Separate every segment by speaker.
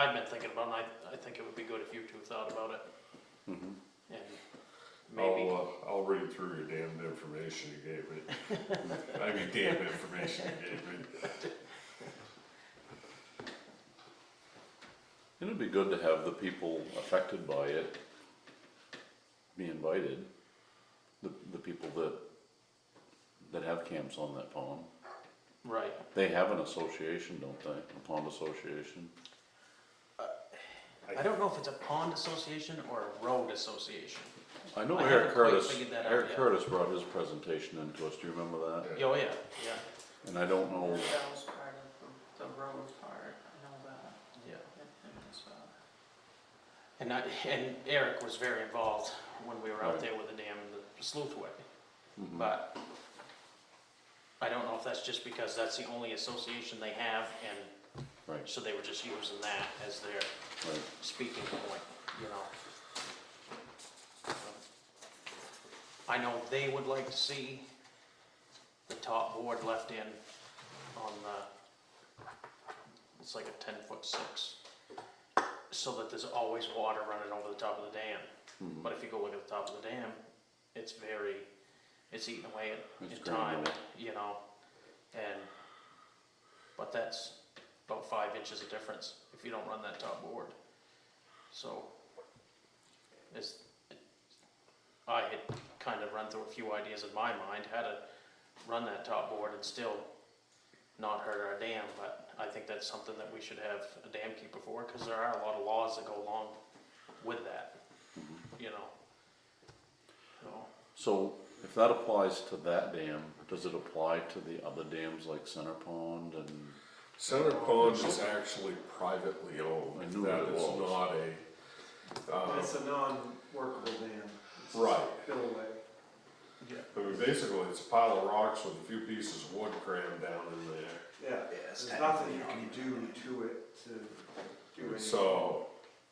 Speaker 1: I've been thinking about, it, and I, I think it would be good if you two thought about it.
Speaker 2: Mm-hmm.
Speaker 1: And
Speaker 2: Oh,
Speaker 1: maybe,
Speaker 3: I'll, uh, I'll read through your damned information you gave me. I mean, damn information you gave me.
Speaker 2: It'd be good to have the people affected by it be invited. The, the people that, that have camps on that pond.
Speaker 1: right,
Speaker 2: They have an association, don't they? A pond association?
Speaker 1: I don't know if it's a pond association or a road association.
Speaker 2: I know
Speaker 1: I
Speaker 2: Eric
Speaker 1: haven't quite
Speaker 2: Curtis,
Speaker 1: figured that out
Speaker 2: Eric
Speaker 1: yet.
Speaker 2: Curtis brought his presentation into us, do you remember that?
Speaker 1: Oh, yeah, yeah,
Speaker 2: And I don't know,
Speaker 4: Oh, That was part of the road part, I know that,
Speaker 1: yeah.
Speaker 4: that thing as well.
Speaker 1: And I, and Eric was very involved when we were out
Speaker 2: Right.
Speaker 1: there with the dam and the sleuth way,
Speaker 2: Mhm.
Speaker 1: but I don't know if that's just because that's the only association they have, and
Speaker 2: right,
Speaker 1: so they were just using that as their
Speaker 2: right.
Speaker 1: speaking point, you know. I know they would like to see the top board left in on the, it's like a ten foot six. So that there's always water running over the top of the dam.
Speaker 2: Mhm.
Speaker 1: But if you go look at the top of the dam, it's very, it's eating away at,
Speaker 2: It's
Speaker 1: at time,
Speaker 2: granular.
Speaker 1: you know, and, but that's about five inches of difference if you don't run that top board. So, it's, I had kind of run through a few ideas in my mind, how to run that top board and still not hurt our dam, but I think that's something that we should have a dam keeper for, cause there are a lot of laws that go along with that
Speaker 5: Mm-hmm.
Speaker 1: you know. So,
Speaker 2: So if that applies to that dam, does it apply to the other dams like Center Pond and?
Speaker 3: Center Pond is Um, actually privately owned.
Speaker 2: I knew
Speaker 3: That
Speaker 2: it
Speaker 3: is
Speaker 2: was.
Speaker 3: not a, uh,
Speaker 6: It's a non-workable dam. It's
Speaker 3: Right.
Speaker 6: Spillway.
Speaker 3: I mean, basically, it's a pile of rocks with a few pieces of wood crammed down in there.
Speaker 6: Yeah, there's nothing you can do to it to do anything.
Speaker 3: So,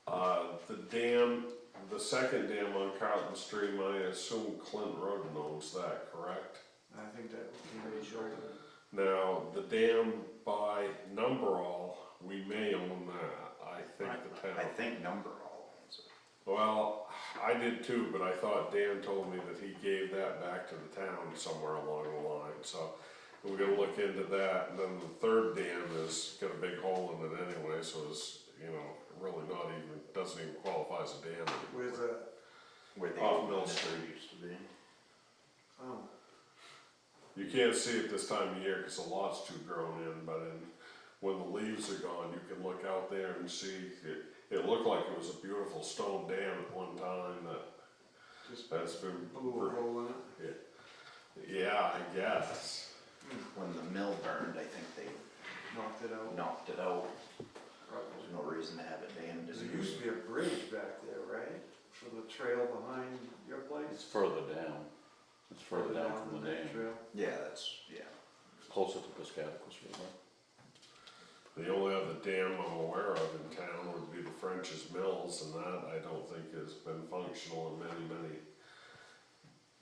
Speaker 3: uh, the dam, the second dam on Carlton Stream, I assume Clint Roden owns that, correct?
Speaker 6: I think that can be shortened.
Speaker 3: Now, the dam by Numberall, we may own that, I think the
Speaker 5: I
Speaker 3: town.
Speaker 5: think number all owns it.
Speaker 3: Well, I did too, but I thought Dan told me that he gave that back to the town somewhere along the line, so we're gonna look into that, and then the third dam has got a big hole in it anyway, so it's, you know, really not even, doesn't even qualify as a dam.
Speaker 6: Where's
Speaker 3: anymore.
Speaker 6: that?
Speaker 5: Where the
Speaker 2: Oh.
Speaker 3: Off
Speaker 5: old
Speaker 3: Mill
Speaker 5: mill
Speaker 3: Street.
Speaker 5: used to be.
Speaker 6: Oh,
Speaker 3: You can't see it this time of year, cause the lot's too grown in, but in, when the leaves are gone, you can look out there and see, it, it looked like it was a beautiful stone dam at one time that,
Speaker 6: just
Speaker 3: that's been.
Speaker 6: blew a hole in it.
Speaker 3: Yeah, I guess.
Speaker 5: When the mill burned, I think they
Speaker 6: Knocked it out.
Speaker 5: knocked it out.
Speaker 6: probably.
Speaker 5: There's no reason to have it dammed
Speaker 6: There used to
Speaker 5: anymore.
Speaker 6: be a bridge back there, right? For the trail behind your
Speaker 2: It's
Speaker 6: place?
Speaker 2: further down. It's further down from the
Speaker 6: that
Speaker 2: dam.
Speaker 6: trail.
Speaker 5: Yeah, that's, yeah.
Speaker 2: It's closer to Piscataquis River.
Speaker 3: The only other dam I'm aware of in town would be the French's Mills, and that I don't think has been functional in many, many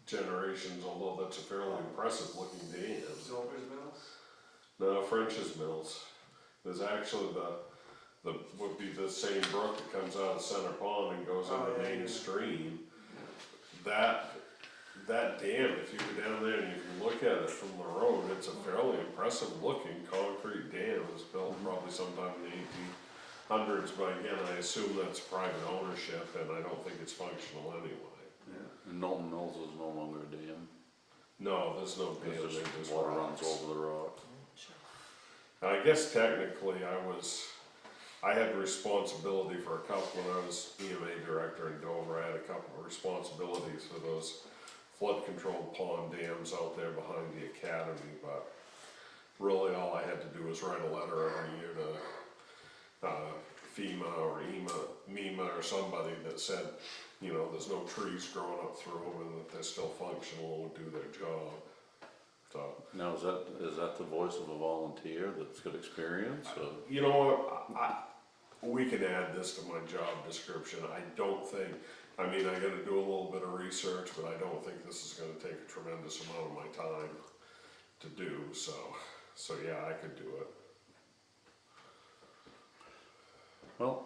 Speaker 3: generations, although that's a fairly impressive looking dam.
Speaker 6: Silver's Mills?
Speaker 3: No, French's Mills, there's actually the, the, would be the same brook that comes out of Center Pond and goes
Speaker 6: Oh,
Speaker 3: into
Speaker 6: yeah,
Speaker 3: Main
Speaker 6: yeah.
Speaker 3: Stream. That, that dam, if you go down there and you can look at it from the road, it's a fairly impressive looking concrete dam. It was built
Speaker 6: Mm-hmm.
Speaker 3: probably sometime in the eighteen hundreds, but again, I assume that's private ownership and I don't think it's functional anyway.
Speaker 6: Yeah.
Speaker 2: And Knowlton Mills is no longer a dam.
Speaker 3: No, there's no dam,
Speaker 2: It's
Speaker 3: there,
Speaker 2: just
Speaker 3: there's
Speaker 2: water runs
Speaker 3: rocks.
Speaker 2: over the rock.
Speaker 3: I guess technically I was, I had responsibility for a couple, when I was EMA director in Dover, I had a couple of responsibilities for those flood control pond dams out there behind the academy, but really all I had to do was write a letter every year to, uh, FEMA or EMA, MEMA or somebody that said, you know, there's no trees growing up through them and that they're still functional and do their job, so.
Speaker 2: Now, is that, is that the voice of a volunteer that's got experience or?
Speaker 3: You know what, I, we can add this to my job description, I don't think, I mean, I gotta do a little bit of research, but I don't think this is gonna take a tremendous amount of my time to do, so, so yeah, I could do it.
Speaker 2: Well,